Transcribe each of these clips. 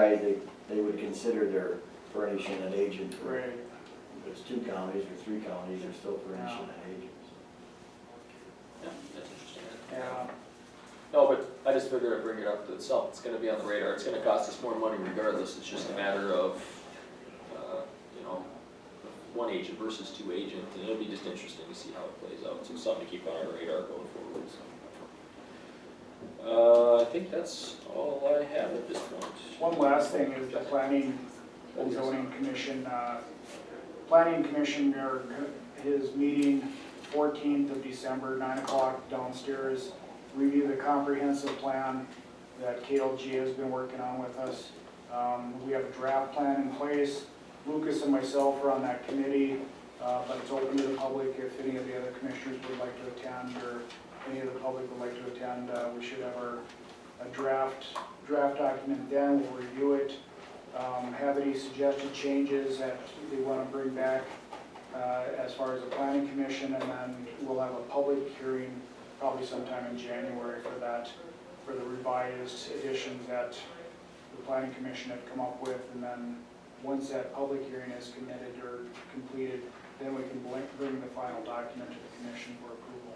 guy that they would consider their furnishing an agent for. If Right. it's two counties or three counties, they're still furnishing an agent. Yeah, that's interesting. Yeah, No, but I just figured I'd bring it up to itself, it's gonna be on the radar, it's gonna cost us more money regardless, it's just a matter of, uh, you know, one agent versus two agent, and it'll be just interesting to see how it plays out, so something to keep on our radar going forward, so. Uh, I think that's all I have at this point. one last thing is the planning and zoning commission, uh, planning commission, or his meeting fourteenth of December, nine o'clock downstairs. Review the comprehensive plan that KLG has been working on with us. Um, we have a draft plan in place. Lucas and myself are on that committee, uh, but it's open to the public if any of the other commissioners would like to attend or any of the public would like to attend. Uh, we should have our, a draft, draft document then, we'll review it. Um, have any suggested changes that they want to bring back, uh, as far as the planning commission, and then we'll have a public hearing probably sometime in January for that, for the revised additions that the planning commission had come up with, and then once that public hearing is committed or completed, then we can bl- bring the final document to the commission for approval.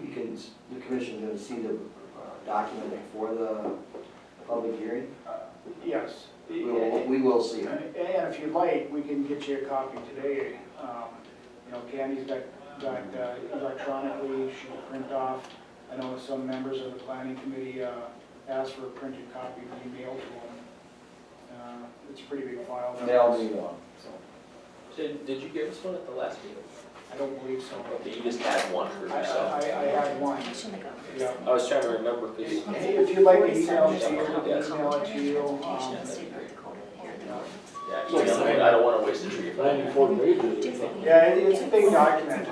You can, the commission's gonna see the uh, document before the public hearing? Yes. We will, we will see it. And and if you'd like, we can get you a copy today. Um, You know, Candy's got, got uh, electronically, she'll print off. I know some members of the planning committee uh, asked for a printed copy to be mailed to them. Uh, It's a pretty big file. They'll be on, so. Did, did you give us one at the last meeting? I don't believe so. Okay, you just had one for I, I yourself. I had one. I shouldn't have gone. Yeah. I was trying to remember, cause, If if you'd like to email it to you, Forty-seven. email it to you. um, Communications, State of Dakota, here in the world. yeah, you know, I don't wanna waste a tree. Ninety-four pages, I think. Yeah, it- it's a big document.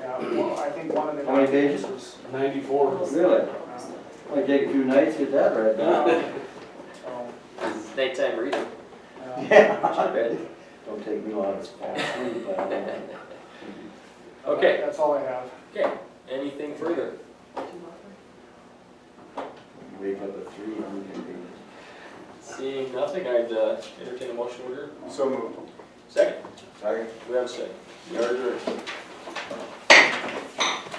Yeah, well, I think one of the. How many pages? documents ninety-four. Really? is, uh, Might take a few nights to get that right now. um, So, It's nighttime reading, uh, Yeah. not bad. Don't take me long to fall asleep. I don't know. Okay. That's all I have. Okay, anything further? Um, Wake up at three, I'm gonna be. Seeing nothing, I'd uh, entertain a motion order. So moved. Second, Sorry? we have a second. We are adjourned.